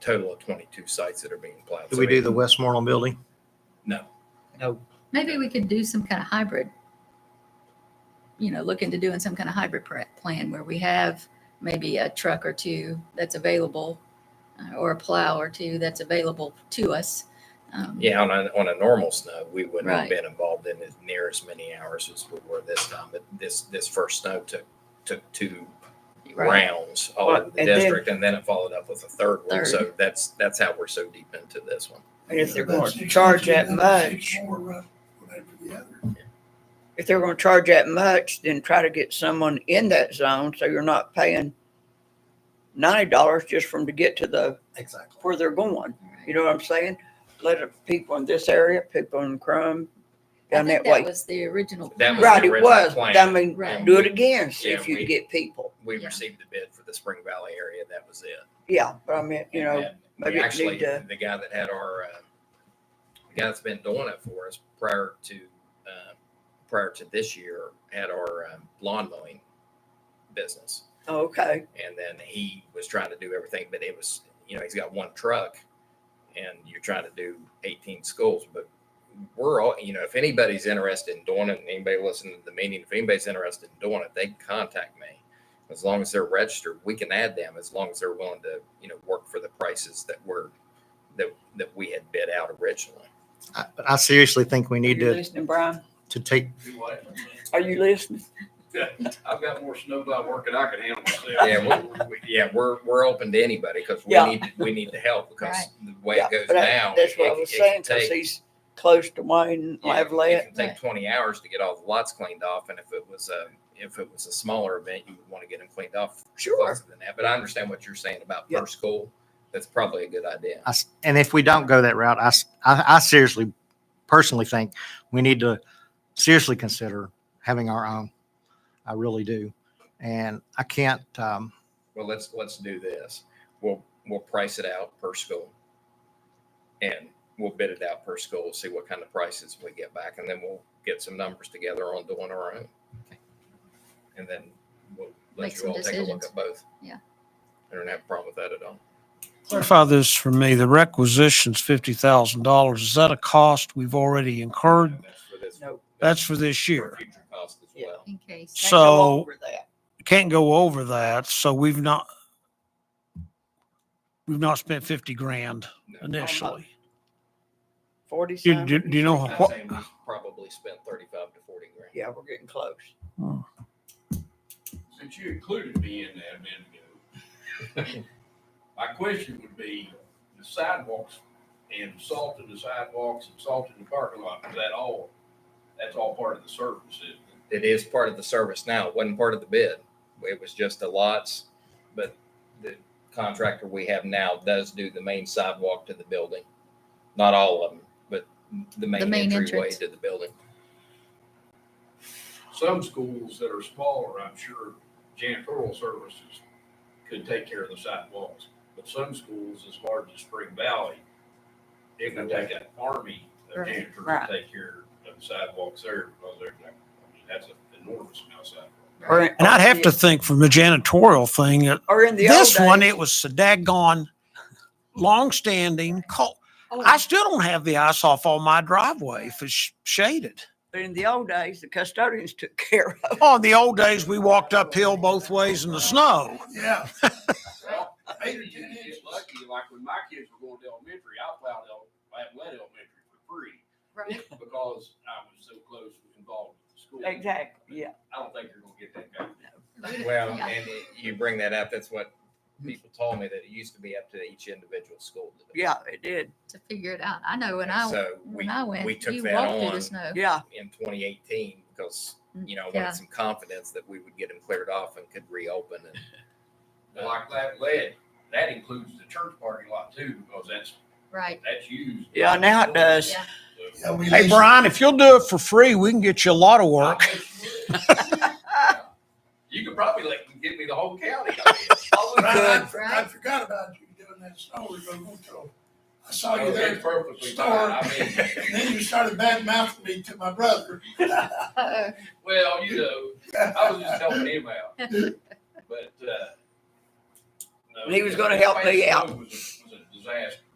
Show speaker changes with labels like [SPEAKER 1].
[SPEAKER 1] total of 22 sites that are being plowed.
[SPEAKER 2] Do
[SPEAKER 1] So
[SPEAKER 2] we do
[SPEAKER 1] it-
[SPEAKER 2] the Westmoreland building?
[SPEAKER 1] No.
[SPEAKER 3] No,
[SPEAKER 4] Maybe we could do some kind of hybrid, you know, look into doing some kind of hybrid pr- plan where we have maybe a truck or two that's available uh, or a plow or two that's available to us. Um,
[SPEAKER 1] Yeah, on a, on a normal snow, we wouldn't have
[SPEAKER 4] Right.
[SPEAKER 1] been involved in it near as many hours as we were this time. But this, this first snow took, took two
[SPEAKER 4] Right.
[SPEAKER 1] rounds all
[SPEAKER 3] Well,
[SPEAKER 1] over the
[SPEAKER 3] and then-
[SPEAKER 1] district, and then it followed up with a third one.
[SPEAKER 4] Third.
[SPEAKER 1] So that's, that's how we're so deep into this one.
[SPEAKER 3] and if they're
[SPEAKER 5] Yeah,
[SPEAKER 3] going to
[SPEAKER 5] that's-
[SPEAKER 3] charge that
[SPEAKER 5] Six
[SPEAKER 3] much,
[SPEAKER 5] more up, one after the other.
[SPEAKER 3] if they're going to charge that much, then try to get someone in that zone so you're not paying ninety dollars just from to get to the,
[SPEAKER 5] Exactly.
[SPEAKER 3] where they're going.
[SPEAKER 4] All right.
[SPEAKER 3] You know what I'm saying? Let the people in this area, people in Crum,
[SPEAKER 4] I
[SPEAKER 3] down
[SPEAKER 4] think
[SPEAKER 3] that
[SPEAKER 4] that
[SPEAKER 3] way.
[SPEAKER 4] was the original.
[SPEAKER 1] That
[SPEAKER 4] plan.
[SPEAKER 1] was the
[SPEAKER 3] Right, it
[SPEAKER 1] original
[SPEAKER 3] was, but I
[SPEAKER 1] plan.
[SPEAKER 3] mean,
[SPEAKER 4] Right.
[SPEAKER 3] do it again, see if
[SPEAKER 1] Yeah,
[SPEAKER 3] you
[SPEAKER 1] we-
[SPEAKER 3] can get people.
[SPEAKER 1] We
[SPEAKER 4] Yeah.
[SPEAKER 1] received the bid for the Spring Valley area. That was it.
[SPEAKER 3] Yeah, but I mean, you know,
[SPEAKER 1] And we
[SPEAKER 3] maybe it
[SPEAKER 1] actually,
[SPEAKER 3] need to,
[SPEAKER 1] the guy that had our, uh, the guy that's been doing it for us prior to, uh, prior to this year, had our um, lawn mowing business.
[SPEAKER 3] okay,
[SPEAKER 1] And then he was trying to do everything, but it was, you know, he's got one truck and you're trying to do 18 schools, but we're all, you know, if anybody's interested in doing it, and anybody listening to the meeting, if anybody's interested in doing it, they can contact me. As long as they're registered, we can add them as long as they're willing to, you know, work for the prices that were, that, that we had bid out originally.
[SPEAKER 2] I, I seriously think we need
[SPEAKER 3] you
[SPEAKER 2] to,
[SPEAKER 3] listening, Brian?
[SPEAKER 2] to take,
[SPEAKER 6] Do what?
[SPEAKER 3] Are you listening?
[SPEAKER 6] I've got more snowplow work than I can handle myself.
[SPEAKER 1] Yeah, we, we, yeah, we're, we're open to anybody because we
[SPEAKER 3] Yeah.
[SPEAKER 1] need, we need the help because the way
[SPEAKER 3] Yeah,
[SPEAKER 1] it goes
[SPEAKER 3] but I-
[SPEAKER 1] now.
[SPEAKER 3] That's
[SPEAKER 1] it-
[SPEAKER 3] what I
[SPEAKER 1] it-
[SPEAKER 3] was
[SPEAKER 1] it can
[SPEAKER 3] saying, cause
[SPEAKER 1] take-
[SPEAKER 3] he's close to Wayne,
[SPEAKER 1] Yeah,
[SPEAKER 3] Lavalette.
[SPEAKER 1] It can take twenty hours to get all the lots cleaned off, and if it was a, if it was a smaller event, you would want to get them cleaned off
[SPEAKER 3] Sure.
[SPEAKER 1] closer than that. But I understand what you're saying about
[SPEAKER 3] Yeah.
[SPEAKER 1] per school. That's probably a good idea.
[SPEAKER 2] I s- and if we don't go that route, I, s- I- I seriously, personally think we need to seriously consider having our own. I really do. And I can't, um,
[SPEAKER 1] Well, let's, let's do this. We'll, we'll price it out per school. And we'll bid it out per school, see what kind of prices we get back, and then we'll get some numbers together on doing our own. And then we'll
[SPEAKER 4] Make
[SPEAKER 1] let you
[SPEAKER 4] some
[SPEAKER 1] all take a look
[SPEAKER 4] decisions.
[SPEAKER 1] at both.
[SPEAKER 4] Yeah.
[SPEAKER 1] I don't have a problem with that at all.
[SPEAKER 7] Clarify this for me. The requisition's fifty thousand dollars. Is that a cost we've already incurred?
[SPEAKER 1] And that's for this-
[SPEAKER 3] No.
[SPEAKER 7] That's for this
[SPEAKER 1] For
[SPEAKER 7] year.
[SPEAKER 1] future costs as
[SPEAKER 3] Yeah.
[SPEAKER 1] well.
[SPEAKER 4] In case.
[SPEAKER 3] Can't go
[SPEAKER 7] So-
[SPEAKER 3] over that.
[SPEAKER 7] Can't go over that, so we've not we've not spent fifty grand initially.
[SPEAKER 3] Forty
[SPEAKER 7] Do, do,
[SPEAKER 3] something?
[SPEAKER 7] do you know
[SPEAKER 1] I'm
[SPEAKER 7] what?
[SPEAKER 1] saying we probably spent thirty-five to forty grand.
[SPEAKER 3] Yeah, we're getting close.
[SPEAKER 6] Since you included me in that a minute ago, my question would be, the sidewalks and salt in the sidewalks and salt in the parking lot, is that all, that's all part of the service, isn't
[SPEAKER 1] It
[SPEAKER 6] it?
[SPEAKER 1] is part of the service now. It wasn't part of the bid. It was just the lots, but the contractor we have now does do the main sidewalk to the building. Not all of them, but the
[SPEAKER 4] The
[SPEAKER 1] main
[SPEAKER 4] main
[SPEAKER 1] entryway
[SPEAKER 4] entrance.
[SPEAKER 1] to the building.
[SPEAKER 6] Some schools that are smaller, I'm sure janitorial services could take care of the sidewalks, but some schools as large as Spring Valley, it would take an army of
[SPEAKER 4] Right.
[SPEAKER 6] janitors to
[SPEAKER 3] Right.
[SPEAKER 6] take care of the sidewalks there, because they're, I mean, that's an enormous amount of sidewalks.
[SPEAKER 7] And I'd have to think from the janitorial thing, that
[SPEAKER 3] Or in the old
[SPEAKER 7] this one,
[SPEAKER 3] days-
[SPEAKER 7] it was a daggone longstanding call. I still don't have the ice off on my driveway if it's shaded.
[SPEAKER 3] But in the old days, the custodians took care of.
[SPEAKER 7] Oh, in the old days, we walked uphill both ways in the snow.
[SPEAKER 5] Yeah.
[SPEAKER 6] Well, maybe you
[SPEAKER 5] Eight or ten
[SPEAKER 6] get
[SPEAKER 5] inches.
[SPEAKER 6] lucky, like when my kids were going to elementary, I plowed El, I led elementary for free
[SPEAKER 4] Right.
[SPEAKER 6] because I was so close involved with the school.
[SPEAKER 3] Exactly, yeah.
[SPEAKER 6] I don't think you're gonna get that back.
[SPEAKER 1] Well,
[SPEAKER 4] Yeah.
[SPEAKER 1] and it- you bring that up, that's what people told me, that it used to be up to each individual school. to do.
[SPEAKER 3] Yeah, it did.
[SPEAKER 4] To figure it out. I know when
[SPEAKER 1] And
[SPEAKER 4] I,
[SPEAKER 1] so we-
[SPEAKER 4] when I went,
[SPEAKER 1] we took
[SPEAKER 4] you
[SPEAKER 1] that
[SPEAKER 4] walked through
[SPEAKER 1] on.
[SPEAKER 4] the snow.
[SPEAKER 3] Yeah,
[SPEAKER 1] in 2018 because you know I wanted
[SPEAKER 4] Yeah.
[SPEAKER 1] some confidence that we would get them cleared off and could reopen. And
[SPEAKER 6] Like that lead, that includes the church parking lot too, because that's,
[SPEAKER 4] Right.
[SPEAKER 6] that's used.
[SPEAKER 3] Yeah, now it does.
[SPEAKER 4] Yeah.
[SPEAKER 6] So-
[SPEAKER 5] Yeah, we
[SPEAKER 7] Hey,
[SPEAKER 5] leased-
[SPEAKER 7] Brian, if you'll do it for free, we can get you a lot of work.
[SPEAKER 6] You could probably like give me the whole county.
[SPEAKER 5] Brian, I
[SPEAKER 4] Good.
[SPEAKER 5] I forgot about you doing that snow removal control. I saw you
[SPEAKER 6] It's
[SPEAKER 5] there,
[SPEAKER 6] perfectly
[SPEAKER 5] Store.
[SPEAKER 6] fine. I mean,
[SPEAKER 5] and then you started bad mouthing me to my brother.
[SPEAKER 4] Uh-oh.
[SPEAKER 6] well, you know, I was just helping him out. But, uh. no,
[SPEAKER 3] And he was gonna help me out.
[SPEAKER 6] It was a- was a disaster.